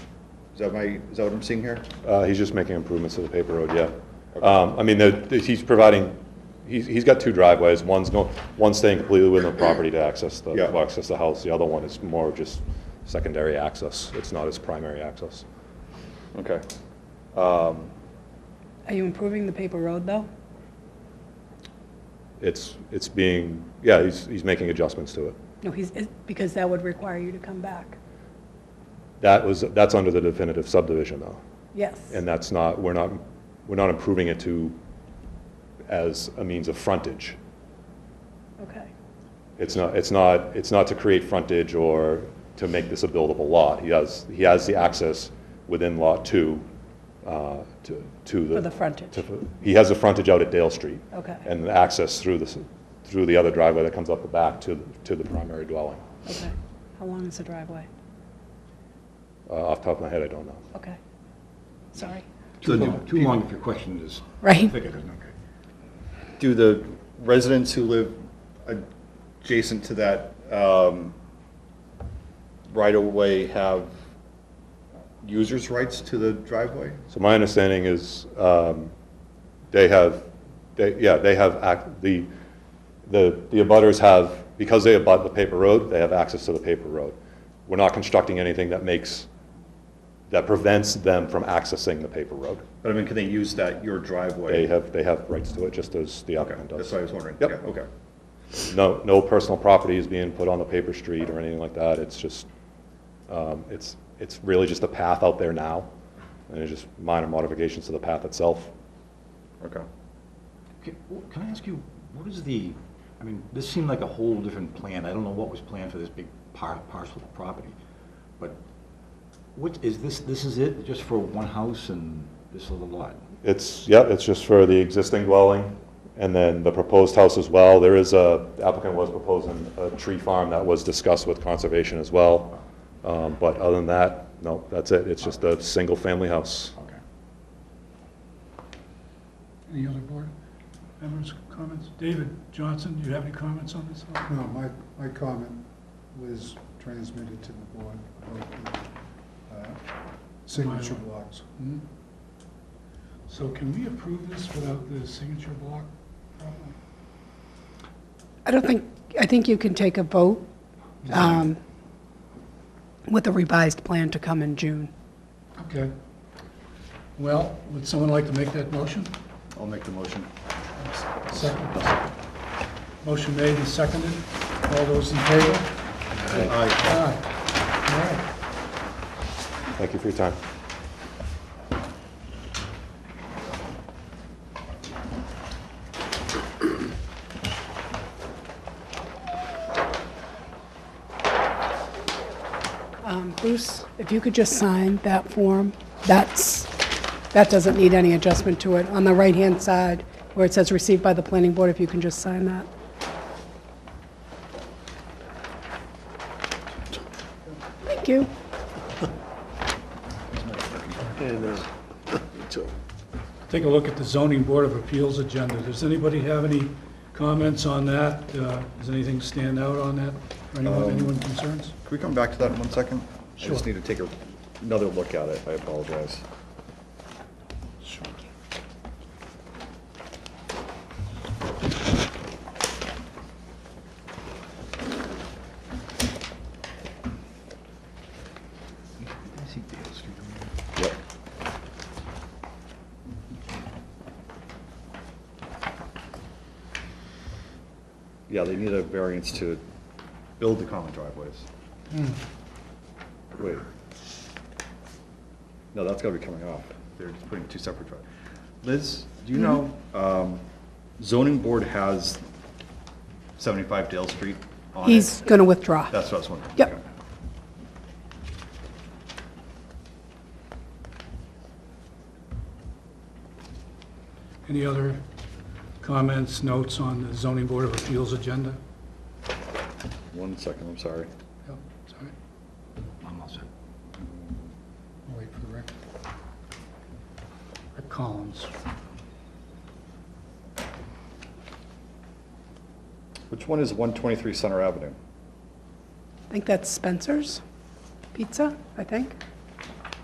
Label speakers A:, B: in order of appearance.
A: Is that my, is that what I'm seeing here?
B: Uh, He's just making improvements to the paper road, yeah. Um, I mean, the- the- he's providing, he's he's got two driveways. One's going, one's staying completely within the property to access the,
A: Yeah.
B: to access the house. The other one is more just secondary access. It's not his primary access.
A: Okay.
C: Are you improving the paper road, though?
B: It's, it's being, yeah, he's, he's making adjustments to it.
C: No, he's, it- because that would require you to come back.
B: That was, that's under the definitive subdivision, though.
C: Yes.
B: And that's not, we're not, we're not improving it to, as a means of frontage.
C: Okay.
B: It's not, it's not, it's not to create frontage or to make this a buildable lot. He has, he has the access within Lot 2 uh, to, to the.
C: For the frontage.
B: to- He has the frontage out at Dale Street.
C: Okay.
B: And the access through the, s- through the other driveway that comes up the back to, to the primary dwelling.
C: Okay. How long is the driveway?
B: Uh, Off the top of my head, I don't know.
C: Okay. Sorry.
D: Too long, too long if your question is
C: Right.
D: thicker than, okay.
A: Do the residents who live adjacent to that um, right-of-way have users' rights to the driveway?
B: So my understanding is um, they have, they, yeah, they have, ac- the, the, the abutters have, because they abut the paper road, they have access to the paper road. We're not constructing anything that makes, that prevents them from accessing the paper road.
A: But I mean, can they use that, your
B: They
A: driveway?
B: have, they have rights to it, just as the
A: Okay,
B: applicant does.
A: that's what I was wondering.
B: Yep.
A: Yeah, Okay.
B: No, no personal property is being put on the paper street or anything like that. It's just, um, it's, it's really just a path out there now, and it's just minor modifications to the path itself.
A: Okay.
D: Okay, w- Can I ask you, what is the, I mean, this seemed like a whole different plan. I don't know what was planned for this big par- parcel of property. But what, is this, this is it, just for one house and this little lot?
B: It's, yeah, it's just for the existing dwelling, and then the proposed house as well. There is a, the applicant was proposing a tree farm that was discussed with conservation as well. Um, But other than that, no, that's it. It's just a single-family house.
D: Okay.
E: Any other board members' comments? David Johnson, do you have any comments on this?
F: No, my, my comment was transmitted to the board, about the, uh, signature
E: Bylaw. Hmm?
F: blocks.
E: So can we approve this without the signature block problem?
C: I don't think, I think you can take a vote um, with a revised plan to come in June.
E: Okay. Well, would someone like to make that motion?
D: I'll make the motion.
E: Second. Motion made and seconded. All those in favor? Aye. All right.
B: Thank you for your time.
C: Um, Bruce, if you could just sign that form, that's, that doesn't need any adjustment to it. On the right-hand side, where it says received by the planning board, if you can just sign that. Thank you.
E: Take a look at the zoning board of appeals agenda. Does anybody have any comments on that? Uh, Does anything stand out on that? Anyone, anyone concerns?
A: Can we come back to that in one second? I just
E: Sure.
A: need to take a- another look at it. I apologize. Yep. Yeah, they need a variance to build the common driveways. Hmm. Wait. No, that's gotta be coming off. They're just putting two separate driveways. Liz, do you know,
C: Mm-hmm.
A: um, zoning board has seventy-five Dale Street on it?
C: He's going to withdraw.
A: That's what I was wondering.
C: Yep.
A: Okay.
E: Any other comments, notes on the zoning board of appeals agenda?
A: One second, I'm sorry.
E: Yep, sorry.
D: I'm all set.
E: I'll wait for the record. Rick Collins.
A: Which one is one twenty-three Center Avenue?
C: I think that's Spencer's Pizza, I think.